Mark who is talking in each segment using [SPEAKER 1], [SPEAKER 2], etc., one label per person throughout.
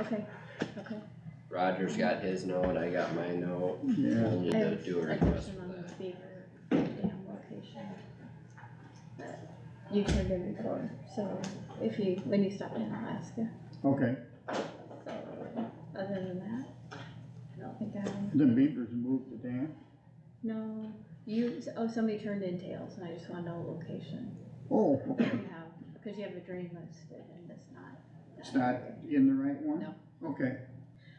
[SPEAKER 1] Okay, okay.
[SPEAKER 2] Roger's got his note, I got my note,
[SPEAKER 3] Yeah,
[SPEAKER 2] we'll need to do a
[SPEAKER 1] I have
[SPEAKER 2] request
[SPEAKER 1] question
[SPEAKER 2] for
[SPEAKER 1] on the
[SPEAKER 2] that.
[SPEAKER 1] Beaver Dam location. that You turned in before, so if you, when you stopped in Alaska,
[SPEAKER 3] okay,
[SPEAKER 1] so, other than that, I don't think I, have-
[SPEAKER 3] the beavers moved the dam,
[SPEAKER 1] no, you, oh, somebody turned in tails, and I just wanna know location.
[SPEAKER 3] oh,
[SPEAKER 1] You have, cause you have a drain listed and it's not.
[SPEAKER 3] it's not in the right one?
[SPEAKER 1] No.
[SPEAKER 3] Okay,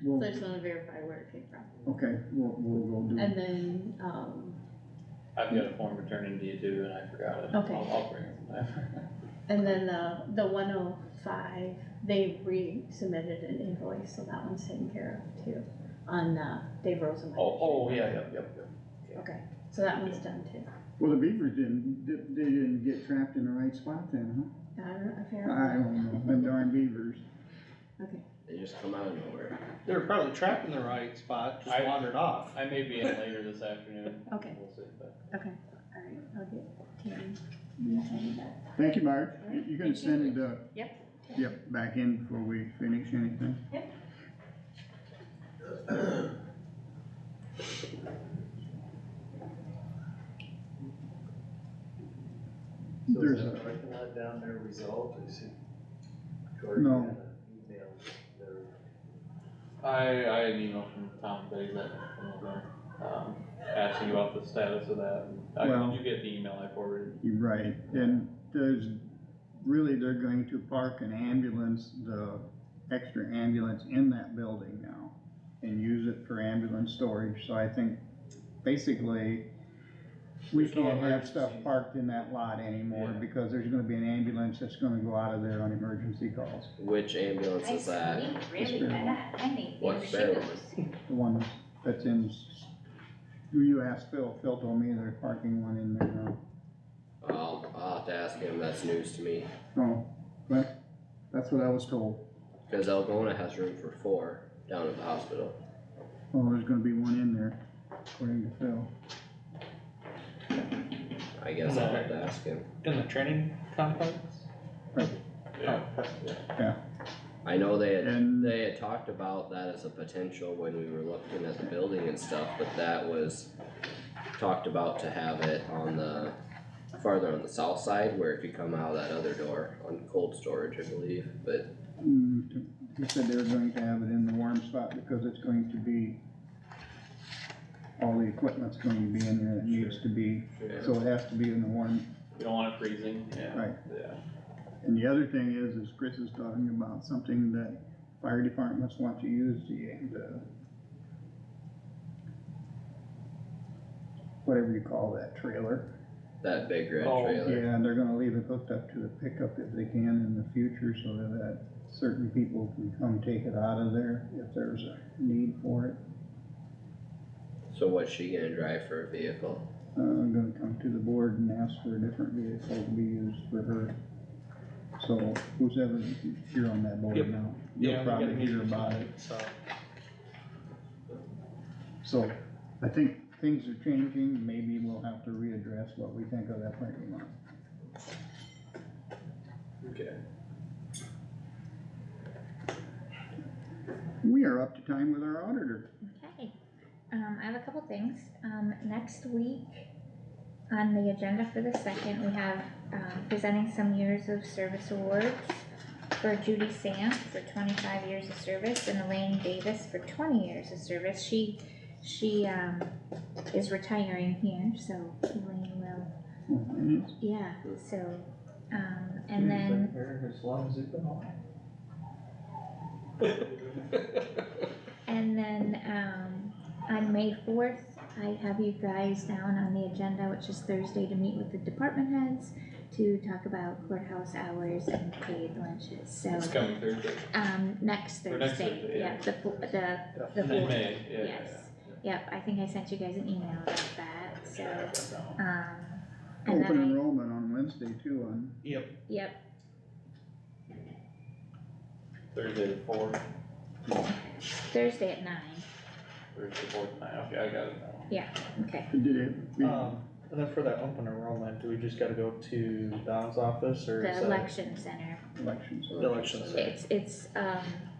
[SPEAKER 1] So
[SPEAKER 3] well,
[SPEAKER 1] I just wanna verify where it came from,
[SPEAKER 3] okay, we'll, we'll go do it,
[SPEAKER 1] and then, um,
[SPEAKER 4] I've got a form returning to you too, and I forgot it.
[SPEAKER 1] Okay.
[SPEAKER 4] I'll, I'll bring it from there.
[SPEAKER 1] And then the, the one oh five, they resubmitted an invoice, so that one's taken care of too, on, uh, Dave Rosenmeyer.
[SPEAKER 4] Oh, oh, yeah, yep, yep, yep.
[SPEAKER 1] Okay, so that one's done too,
[SPEAKER 3] well, the beavers didn't, di- they didn't get trapped in the right spot then,
[SPEAKER 1] I don't know,
[SPEAKER 3] huh? I
[SPEAKER 1] apparently,
[SPEAKER 3] don't know, them darn beavers,
[SPEAKER 1] okay,
[SPEAKER 2] They just come out of nowhere.
[SPEAKER 5] They were probably trapped in the right spot, just
[SPEAKER 4] I-
[SPEAKER 5] wandered off.
[SPEAKER 4] I may be in later this afternoon.
[SPEAKER 1] Okay.
[SPEAKER 4] We'll see, but
[SPEAKER 1] okay, alright, I'll get Tammy. Yes, I need that.
[SPEAKER 3] thank you, Marge, You- you can
[SPEAKER 1] Thank you.
[SPEAKER 3] send it, uh.
[SPEAKER 1] Yep.
[SPEAKER 3] Yep, back in before we finish anything.
[SPEAKER 6] So is
[SPEAKER 3] There's
[SPEAKER 6] that
[SPEAKER 3] a-
[SPEAKER 6] parking lot down there resolved, or is it? Cory
[SPEAKER 3] No.
[SPEAKER 6] had an Email there.
[SPEAKER 4] I, I had an email from Tom Biggs that, from over, um, asking about the status of that. I,
[SPEAKER 3] Well-
[SPEAKER 4] did you get the email I forwarded?
[SPEAKER 3] You're right, and there's, really, they're going to park an ambulance, the extra ambulance in that building now. And use it for ambulance storage, so I think basically, we
[SPEAKER 4] There's no
[SPEAKER 3] can't have
[SPEAKER 4] emergency.
[SPEAKER 3] stuff parked in that lot anymore.
[SPEAKER 4] Yeah.
[SPEAKER 3] Because there's gonna be an ambulance that's gonna go out of there on emergency calls,
[SPEAKER 2] Which ambulance
[SPEAKER 7] I
[SPEAKER 2] is that?
[SPEAKER 7] squeaked really bad, I think they were
[SPEAKER 2] What's that?
[SPEAKER 7] shingles.
[SPEAKER 3] the one that's in, s- you asked Phil, Phil told me they're parking one in there now.
[SPEAKER 2] I'll, I'll have to ask him, that's news to me,
[SPEAKER 3] Oh, but, that's what I was told.
[SPEAKER 2] cause Algona has room for four down at the hospital.
[SPEAKER 3] Oh, there's gonna be one in there, according to Phil.
[SPEAKER 2] I guess I'll have to
[SPEAKER 3] Mm-hmm.
[SPEAKER 2] ask him.
[SPEAKER 5] In the training complex?
[SPEAKER 3] Oh.
[SPEAKER 4] Yeah.
[SPEAKER 2] I know they had,
[SPEAKER 3] And-
[SPEAKER 2] they had talked about that as a potential when we were looking at the building and stuff, but that was talked about to have it on the, farther on the south side where it could come out of that other door on cold storage, I believe, but
[SPEAKER 3] Mm, t- He said they were going to have it in the warm spot because it's going to be, all the equipment's going to be in there that needs to be, so it has to be in the warm.
[SPEAKER 4] We don't want it freezing, yeah.
[SPEAKER 3] Right.
[SPEAKER 4] Yeah.
[SPEAKER 3] And the other thing is, is Chris is talking about something that fire departments want to uh, use the, the whatever you call that trailer.
[SPEAKER 2] that big red
[SPEAKER 4] Oh,
[SPEAKER 2] trailer.
[SPEAKER 3] Yeah, and they're gonna leave it hooked up to the pickup if they can in the future, so that certain people can come take it out of there if there's a need for it.
[SPEAKER 2] So what's she gonna drive for a vehicle?
[SPEAKER 3] Uh, I'm gonna come to the board and ask for a different vehicle to be used for her. So who's ever, you're on that board
[SPEAKER 5] Yep.
[SPEAKER 3] now, you'll probably hear about it.
[SPEAKER 5] So,
[SPEAKER 3] So I think things are changing, maybe we'll have to readdress what we think of that parking lot.
[SPEAKER 4] Okay.
[SPEAKER 3] We are up to time with our auditor.
[SPEAKER 7] Okay, um, I have a couple things, um, next week, on the agenda for the second, we have, um, presenting some years of service awards for Judy Sam for twenty-five years of service and Elaine Davis for twenty years of service, she, she, um, is retiring here, so Elaine will,
[SPEAKER 3] Oh, and it's-
[SPEAKER 7] yeah, so, um, and then.
[SPEAKER 5] been here as long as you've been alive.
[SPEAKER 7] And then, um, on May fourth, I have you guys down on the agenda, which is Thursday, to meet with the department heads to talk about courthouse hours and paid lunches, so,
[SPEAKER 4] It's coming Thursday,
[SPEAKER 7] um, next
[SPEAKER 4] Or next
[SPEAKER 7] Thursday,
[SPEAKER 4] Thursday,
[SPEAKER 7] yeah,
[SPEAKER 4] yeah.
[SPEAKER 7] the, fo- the, the
[SPEAKER 4] in
[SPEAKER 7] fourth.
[SPEAKER 4] May, yeah, yeah,
[SPEAKER 7] Yes, yep, I think I sent you guys an email about that, so, um, and
[SPEAKER 3] Open
[SPEAKER 7] then I,
[SPEAKER 3] enrollment on Wednesday too on
[SPEAKER 7] yep,
[SPEAKER 4] yeah. Thursday the fourth,
[SPEAKER 7] Thursday at nine,
[SPEAKER 4] Thursday the fourth night, okay, I got it now.
[SPEAKER 7] okay,
[SPEAKER 3] Did it, we,
[SPEAKER 5] Um, and then for that open enrollment, do we just gotta go to Don's office or is
[SPEAKER 7] the
[SPEAKER 5] that
[SPEAKER 7] election center,
[SPEAKER 3] elections.
[SPEAKER 5] the election? center?
[SPEAKER 7] it's, it's, um,